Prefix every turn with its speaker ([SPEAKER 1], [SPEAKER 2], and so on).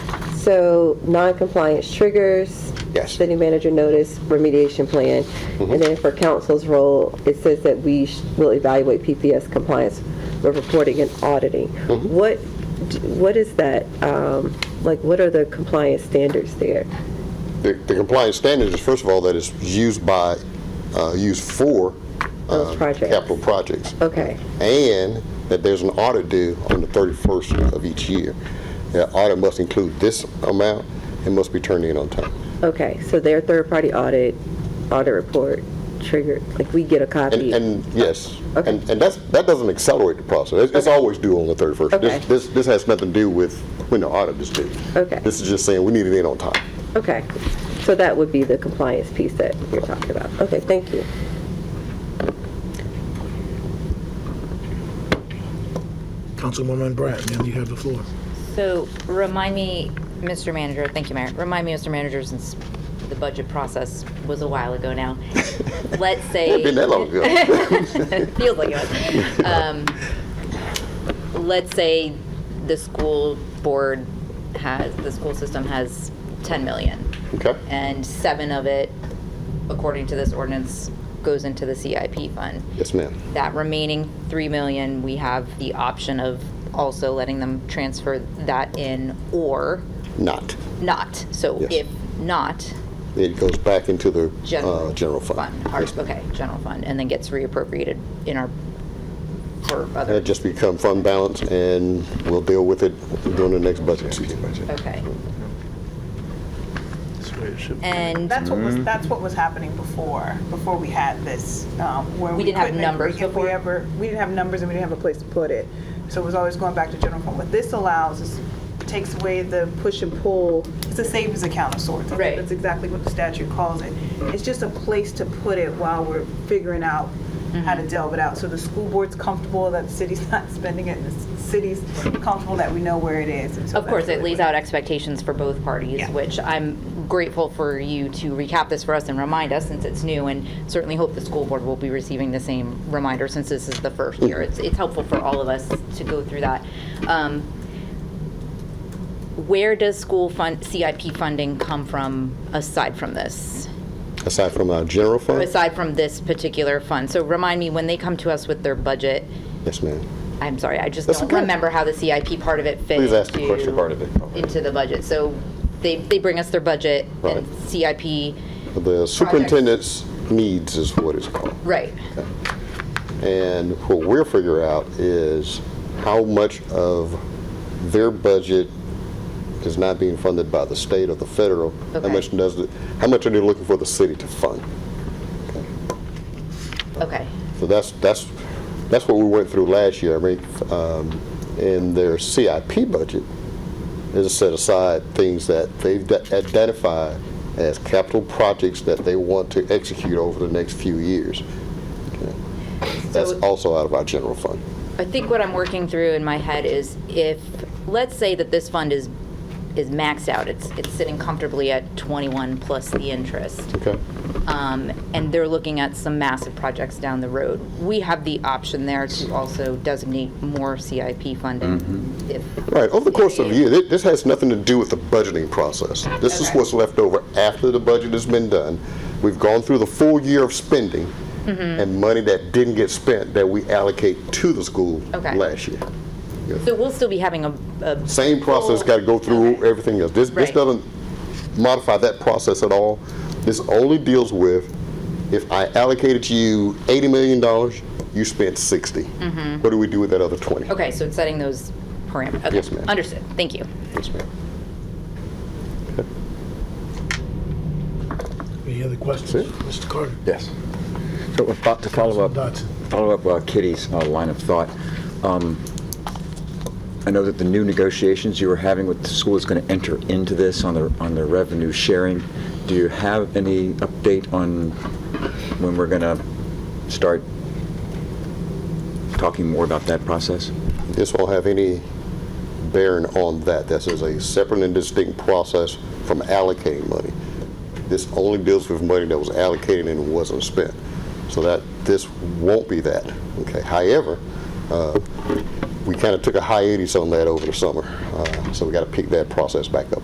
[SPEAKER 1] So non-compliance triggers.
[SPEAKER 2] Yes. Mm-hmm.
[SPEAKER 1] City manager notice, remediation plan. And then for council's role, it says that we sh- will evaluate PPS compliance with reporting and auditing.
[SPEAKER 2] Mm-hmm.
[SPEAKER 1] What, d- what is that, um, like, what are the compliance standards there?
[SPEAKER 2] The the compliance standard is, first of all, that it's used by, uh, used for
[SPEAKER 1] Those
[SPEAKER 2] uh,
[SPEAKER 1] projects.
[SPEAKER 2] capital projects.
[SPEAKER 1] Okay,
[SPEAKER 2] and that there's an audit due on the 31st of each year. That audit must include this amount and must be turned in on time.
[SPEAKER 1] okay, so their third-party audit, audit report triggered, like, we get a
[SPEAKER 2] And,
[SPEAKER 1] copy?
[SPEAKER 2] and yes,
[SPEAKER 1] Okay.
[SPEAKER 2] and, and that's, that doesn't accelerate the process. It's- It's always due on the 31st. This-
[SPEAKER 1] Okay.
[SPEAKER 2] This, this has nothing to do with when the audit is due.
[SPEAKER 1] Okay.
[SPEAKER 2] This is just saying we need it in on time.
[SPEAKER 1] Okay, so that would be the compliance piece that you're talking about. Okay, thank you.
[SPEAKER 3] Councilwoman Bratton, now you have the floor.
[SPEAKER 4] So remind me, Mr. Manager, thank you, Mayor. Remind me, Mr. Manager, since the budget process was a while ago now. Let's say.
[SPEAKER 2] Been that long ago.
[SPEAKER 4] Feels like it was. Um, Let's say the school board has, the school system has 10 million.
[SPEAKER 2] Okay?
[SPEAKER 4] And seven of it, according to this ordinance, goes into the CIP fund
[SPEAKER 2] Yes, ma'am.
[SPEAKER 4] that remaining 3 million, we have the option of also letting them transfer that in or
[SPEAKER 2] Not.
[SPEAKER 4] not. So
[SPEAKER 2] Yes.
[SPEAKER 4] if not,
[SPEAKER 2] It goes back into the uh,
[SPEAKER 4] general.
[SPEAKER 2] general fund.
[SPEAKER 4] Or-
[SPEAKER 2] Yes, ma'am.
[SPEAKER 4] Okay, general fund, and then gets reappropriated in our, for
[SPEAKER 2] And
[SPEAKER 4] other,
[SPEAKER 2] it just become fund balance, and we'll deal with it during the next budget season.
[SPEAKER 4] okay.
[SPEAKER 3] That's the way it should be.
[SPEAKER 4] And
[SPEAKER 5] That's what was, that's what was happening before, before we had this, um, where
[SPEAKER 4] We
[SPEAKER 5] we.
[SPEAKER 4] didn't have
[SPEAKER 5] couldn't-
[SPEAKER 4] numbers
[SPEAKER 5] If we
[SPEAKER 4] before?
[SPEAKER 5] ever, we didn't have numbers and we didn't have a place to put it. So it was always going back to general fund. What this allows is, takes away the push and pull. It's a savings account of sorts. I think
[SPEAKER 4] Right.
[SPEAKER 5] That's exactly what the statute calls it. It's just a place to put it while we're figuring out how
[SPEAKER 4] Mm-hmm.
[SPEAKER 5] to delve it out. So the school board's comfortable that the city's not spending it, and the city's comfortable that we know where it is. And so
[SPEAKER 4] of course,
[SPEAKER 5] that's
[SPEAKER 4] it
[SPEAKER 5] really
[SPEAKER 4] lays out expectations for both parties,
[SPEAKER 5] Yeah.
[SPEAKER 4] which I'm grateful for you to recap this for us and remind us, since it's new, and certainly hope the school board will be receiving the same reminder, since this is the first year. It's, it's helpful for all of us to go through that. Um, Where does school fund, CIP funding come from aside from this?
[SPEAKER 2] Aside from our general fund?
[SPEAKER 4] Aside from this particular fund? So remind me, when they come to us with their budget,
[SPEAKER 2] Yes, ma'am.
[SPEAKER 4] I'm sorry, I just
[SPEAKER 2] That's
[SPEAKER 4] don't
[SPEAKER 2] okay.
[SPEAKER 4] remember how the CIP part of it fit
[SPEAKER 2] Please ask the
[SPEAKER 4] into-
[SPEAKER 2] question part of it.
[SPEAKER 4] Into the budget. So they, they bring us their budget
[SPEAKER 2] Right.
[SPEAKER 4] and CIP,
[SPEAKER 2] The superintendent's needs is what it's called.
[SPEAKER 4] right,
[SPEAKER 2] And what we'll figure out is how much of their budget is not being funded by the state or the federal. How
[SPEAKER 4] Okay.
[SPEAKER 2] much does, it- how much are they looking for the city to fund?
[SPEAKER 4] okay,
[SPEAKER 2] So that's, that's, that's what we went through last year. I mean, um, in their CIP budget, is set aside things that they've de- identified as capital projects that they want to execute over the next few years. Okay. That's
[SPEAKER 4] So-
[SPEAKER 2] also out of our general fund.
[SPEAKER 4] I think what I'm working through in my head is if, let's say that this fund is, is maxed out, it's, it's sitting comfortably at 21 plus the interest,
[SPEAKER 2] Okay.
[SPEAKER 4] um, and they're looking at some massive projects down the road. We have the option there to also designate more CIP funding
[SPEAKER 2] Mm-hmm.
[SPEAKER 4] if,
[SPEAKER 2] Right, over the course of the year, thi- this has nothing to do with the budgeting process. This is
[SPEAKER 4] Okay.
[SPEAKER 2] what's left over after the budget has been done. We've gone through the full year of spending
[SPEAKER 4] Mm-hmm.
[SPEAKER 2] and money that didn't get spent that we allocate to the school
[SPEAKER 4] Okay.
[SPEAKER 2] last year.
[SPEAKER 4] so we'll still be having a, a
[SPEAKER 2] Same process,
[SPEAKER 4] Full-
[SPEAKER 2] got to go through
[SPEAKER 4] okay.
[SPEAKER 2] everything else. This, this
[SPEAKER 4] Right.
[SPEAKER 2] doesn't modify that process at all. This only deals with if I allocated you $80 million, you spent 60. What do we do with that other 20?
[SPEAKER 4] Mm-hmm. Okay, so it's setting those parameters. Okay,
[SPEAKER 2] Yes, ma'am.
[SPEAKER 4] Understood, thank you.
[SPEAKER 2] Yes, ma'am.
[SPEAKER 3] Any other questions? Mr. Carter?
[SPEAKER 6] Yes. So uh, fo- to follow
[SPEAKER 3] Councilman
[SPEAKER 6] up,
[SPEAKER 3] Dodson.
[SPEAKER 6] follow up uh, Kitty's uh, line of thought, um, I know that the new negotiations you were having with the school is going to enter into this on the, on the revenue sharing. Do you have any update on when we're going to start talking more about that process?
[SPEAKER 2] This won't have any bearing on that. This is a separate and distinct process from allocating money. This only deals with money that was allocated and wasn't spent. So that, this won't be that, okay? However, uh, we kind of took a hiatus on that over the summer, uh, so we got to pick that process back up